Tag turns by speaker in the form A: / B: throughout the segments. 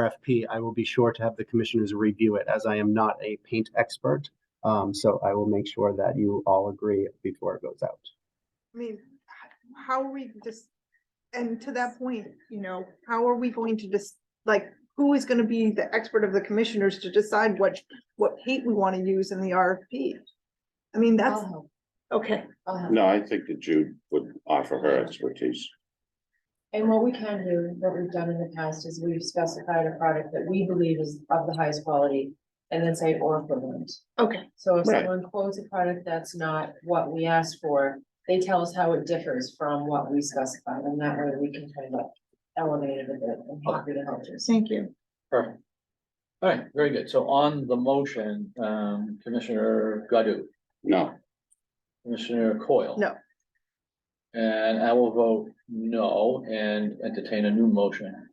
A: RFP, I will be sure to have the commissioners review it as I am not a paint expert. Um, so I will make sure that you all agree before it goes out.
B: I mean, h- how are we just, and to that point, you know, how are we going to just, like, who is gonna be the expert of the commissioners to decide what, what paint we wanna use in the RFP? I mean, that's, okay,
C: No, I think that Jude would offer her expertise.
D: And what we can do, what we've done in the past is we've specified a product that we believe is of the highest quality and then say or equivalent.
B: okay,
D: So if
C: Right.
D: someone quotes a product that's not what we asked for, they tell us how it differs from what we specified and that way we can kind of elevate it a bit and happy to help you.
B: thank you.
E: Perfect. All right, very good. So on the motion, um, Commissioner Godu,
C: No,
E: Commissioner Coyle.
B: No.
E: And I will vote no and entertain a new motion.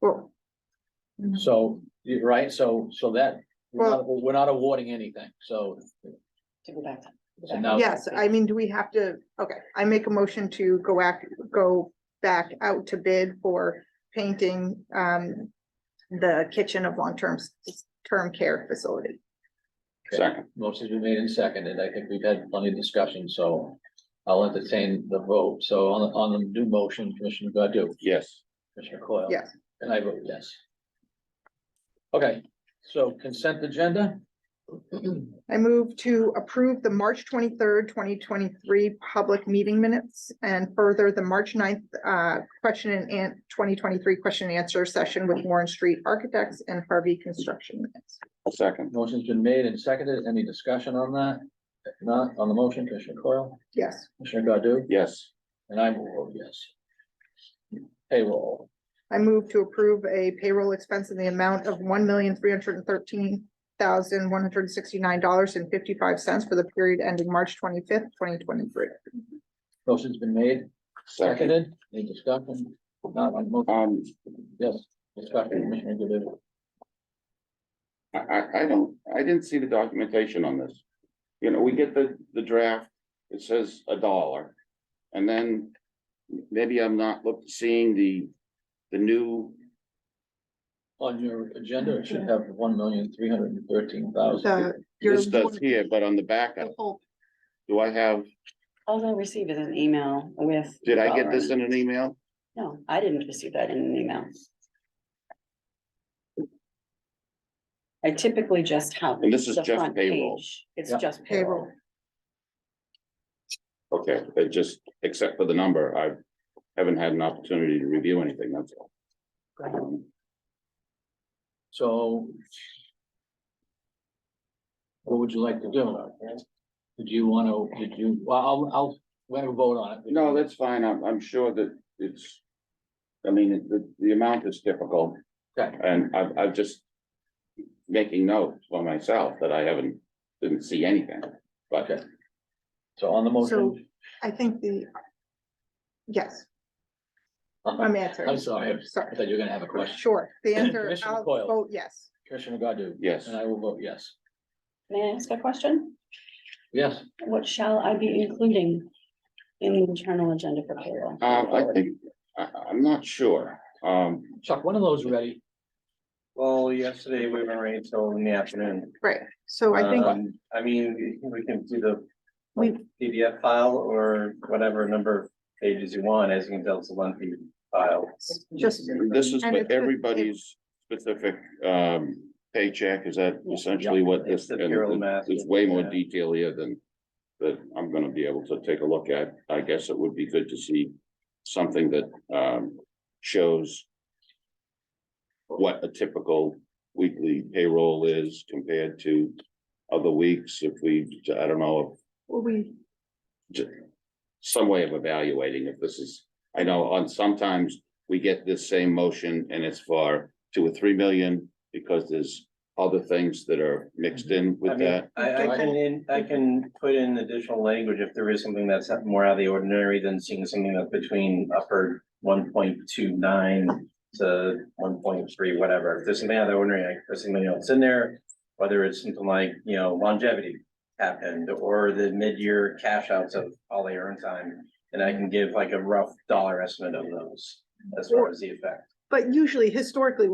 B: Well,
E: So, you're right, so, so that, we're not, we're not awarding anything, so.
D: To go back. to-
E: so now-
B: yes, I mean, do we have to, okay, I make a motion to go act, go back out to bid for painting, um, the kitchen of long-term, s- term care facility.
C: second,
E: Motion's been made and seconded. I think we've had plenty of discussion, so I'll entertain the vote. So on, the- on the new motion, Commissioner Godu.
C: yes,
E: Commissioner Coyle?
B: Yes.
E: And I vote yes. Okay, so consent agenda?
B: I move to approve the March twenty-third, twenty twenty-three public meeting minutes and further the March 9th uh, question and an- twenty twenty-three question and answer session with Warren Street Architects and Harvey Construction Minutes.
C: second,
E: Motion's been made and seconded. Any discussion on that? If not, on the motion, Commissioner Coyle,
B: Yes,
E: Commissioner Godu,
C: yes,
E: and I will vote yes. Payroll,
B: I move to approve a payroll expense in the amount of one million, three hundred and thirteen thousand, one hundred and sixty-nine dollars and fifty-five cents for the period ending March twenty-fifth, twenty twenty-three.
E: motion's been made,
C: second.
E: seconded. Any discussion? If Not on the motion,
C: Um,
E: yes, discussion, Commissioner Godu.
C: I, I, I don't, I didn't see the documentation on this. You know, we get the, the draft, it says a dollar. And then maybe I'm not look, seeing the, the new,
E: On your agenda, it should have one million, three hundred and thirteen thousand.
B: The, your-
C: this does here, but on the back,
B: the whole-
C: do I have,
F: All I received is an email with.
C: did I get this in
F: dollar
C: an email?
F: amount. No, I didn't receive that in an email. I typically just have.
C: And this is
F: the
C: just
F: front
C: payroll.
F: page. It's
E: Yeah.
F: just
B: Payroll.
F: payroll.
C: Okay, it just, except for the number, I haven't had an opportunity to review anything, that's all. Um,
E: So. What would you like to do? Did you wanna, did you, well, I'll, I'll, we'll have a vote on it.
C: No, that's fine. I'm, I'm sure that it's, I mean, it- the, the amount is difficult.
E: Okay.
C: And I've, I've just making notes for myself that I haven't, didn't see anything. But
E: Okay. So on the
B: So-
E: motion,
B: I think the, yes,
E: I'm
B: I'm answering.
E: Uh-huh. sorry, I
B: Sorry.
E: thought you were gonna have a question.
B: Sure, the answer,
E: Commissioner
B: I'll
E: Coyle.
B: vote yes.
E: Commissioner Godu?
C: yes,
E: And I will vote yes.
F: May I ask a question?
E: Yes,
F: What shall I be including in the internal agenda for payroll?
C: uh, I think, I, I'm not sure. Um,
E: Chuck, one of those ready.
G: Well, yesterday we were rain till in the afternoon.
B: Right, so I think,
E: Uh,
G: Um, I mean, we can do the
B: We-
G: PDF file or whatever number of pages you want, as you can tell, it's a lengthy file.
B: Just-
C: this is
B: And it's
C: for
B: the- it-
C: everybody's specific, um, paycheck. Is that essentially what
G: It's
C: this?
G: the
C: and
G: payroll
C: th-
G: math,
C: There's way more
G: yeah.
C: detail here than, that I'm gonna be able to take a look at. I guess it would be good to see something that, um, shows what a typical weekly payroll is compared to other weeks, if we, I don't know,
B: well, we,
C: j- some way of evaluating if this is, I know on sometimes we get this same motion and it's for two or three million because there's other things that are mixed in
G: Mm-hmm. I
C: with
G: mean,
C: that.
G: I, I can, in- I can put in additional language if there is something that's more out of the ordinary than seeing something that's between upper one point two nine to one point three, whatever. If there's something out of the ordinary, like there's something else in there, whether it's something like, you know, longevity happened or the mid-year cash outs of all the earn time, and I can give like a rough dollar estimate of those as far as the effect.
B: But usually historically,